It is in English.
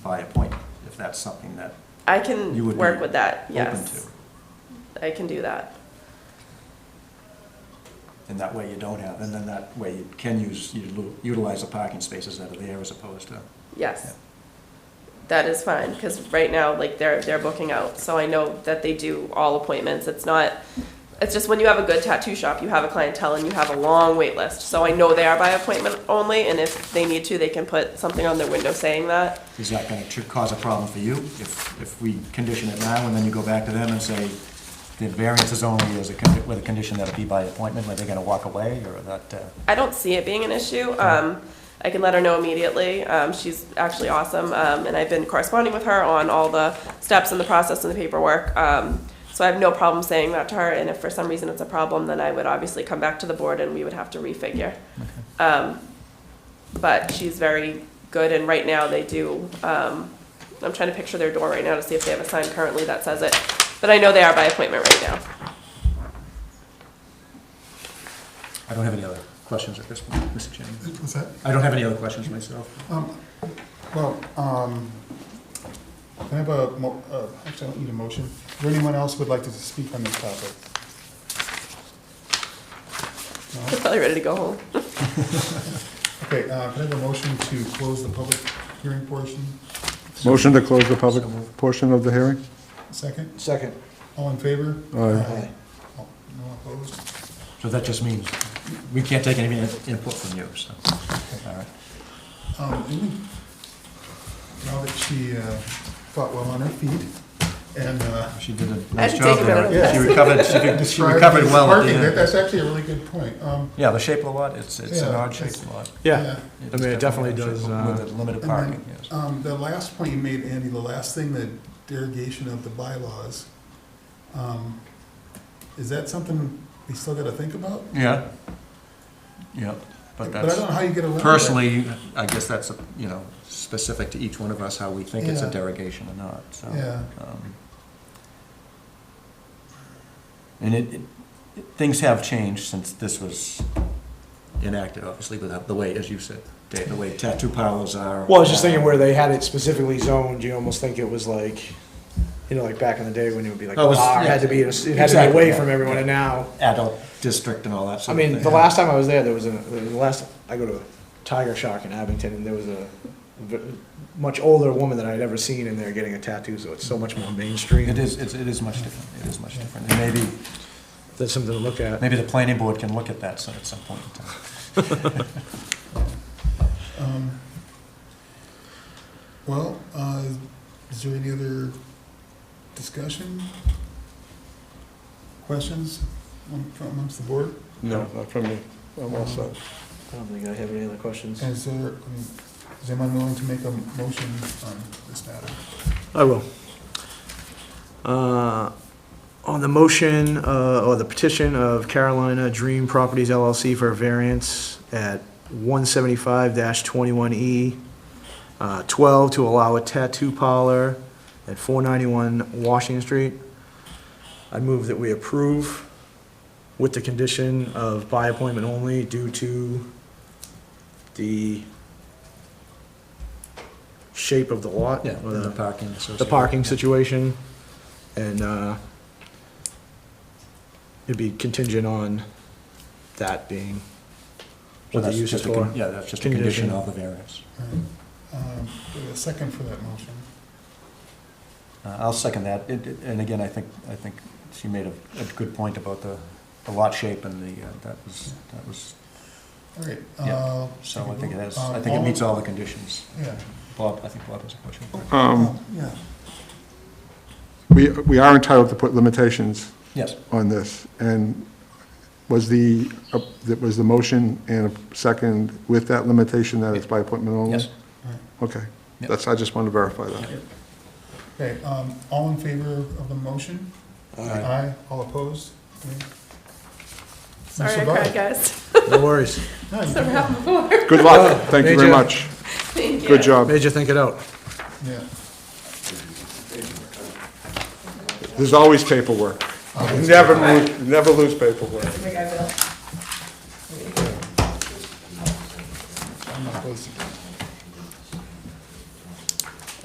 by appointment, if that's something that I you would can be work with that, open yes. to. I can do that. And that way you don't have, and then that way you can use, you lu- utilize the parking spaces that are there as opposed to, Yes. That is fine, because right now, like, they're, they're booking out, so I know that they do all appointments. It's not, it's just when you have a good tattoo shop, you have a clientele and you have a long wait list. So I know they are by appointment only, and if they need to, they can put something on their window saying that. is that gonna tr- cause a problem for you? If, if we condition it now and then you go back to them and say, the variance is only as a, condi- with a condition that it be by appointment, are they gonna walk away or that, uh, I don't see it being an issue. Um, I can let her know immediately. Um, she's actually awesome, um, and I've been corresponding with her on all the steps in the process and the paperwork. Um, so I have no problem saying that to her, and if for some reason it's a problem, then I would obviously come back to the board and we would have to refigure. Um, but she's very good, and right now they do, um, I'm trying to picture their door right now to see if they have a sign currently that says it. But I know they are by appointment right now. I don't have any other questions at this point, Mr. Chairman. What's that? Um, I don't have any other questions myself. Well, um, can I have a, mo- uh, actually, I don't need a motion. Is there anyone else would like to speak on this topic? They're No? probably ready to go home. Okay, uh, can I have a motion to close the public hearing portion? Motion to close the public portion of the hearing? Second? Second. All in favor? Aye. Oh, No opposed? So that just means we can't take any in- input from you, so, all right. Um, and Now that she uh, fought well on her feet and uh, She did a I nice should job take a better there. She recovered, she re- she described recovered the well at the parking, that- end. that's actually a really good point. Um, Yeah, the shape of the lot, it's, it's an Yeah, odd it's- shaped lot. yeah. Yeah, I mean, it It's definitely an odd does, shape uh, With a limited And parking, then, yes. Um, the last point you made, Andy, the last thing, the derogation of the bylaws, um, is that something we still gotta think about? Yeah. Yeah, but I don't know that's, how you get around that. personally, I guess that's, a you know, specific to each one of us, how we think it's a Yeah. derogation or not, so. Yeah, Um, And it, it- it- things have changed since this was enacted, obviously, with the way, as you said, Dave, the way tattoo parlors are. Well, I was just thinking where they had it specifically zoned, you almost think it was like, you know, like back in the day when it would be like, Oh, it was- ah, it had to be, it had to be Exactly, away yeah. from everyone, and now, Adult district and all that I sort of thing. mean, the last time I was there, there was a, the last, I go to Tiger Shock in Abington, and there was a v- much older woman than I'd ever seen in there getting a tattoo, so it's so much more It mainstream. is, it's- it is much different, it is much different. And maybe, That's something to look at. maybe the planning board can look at that so- at some point in time. um, well, uh, is there any other discussion? Questions am- from amongst the board? No, not from me. I'm all set. I don't think I have any other questions. Is there, um, is anyone willing to make a motion on this matter? I will. Uh, On the motion, uh, or the petition of Carolina Dream Properties LLC for a variance at 175-21E, E, uh, 12 to allow a tattoo parlor at 491 Washington Street. I move that we approve with the condition of by appointment only due to the shape of the lot. Yeah, or and the parking the associated. parking situation, and uh, it'd be contingent on that being So what the that's use is just a con- for. Yeah, that's just a condition Condition. of the variance. All right. Um, do we have A second for that motion. Uh, I'll second that. It- it- And again, I think, I think she made a, a good point about the, the lot shape and the, uh, that was, that was, All right. Yeah. uh, so I take a think it vote. has, Uh, I think it all- meets all the conditions. Yeah. Bob, I think Bob has a question. Um, Yeah. we, we are entitled to put limitations Yes, on this, and was the, uh, that was the motion and a second with that limitation that it's by appointment only? yes. All right. Okay, Yeah. that's, I just wanted to verify that. Okay, um, all in favor of the motion? Aye. Aye. All opposed? Nay? Sorry, I Mr. Bud? cried, guys. No worries. No, you It's did around well. before. Good luck, thank you very Major. much. Thank you. Good job. Made you think it out. Yeah. There's always paperwork. Never, lose- never lose paperwork. I'm not opposed to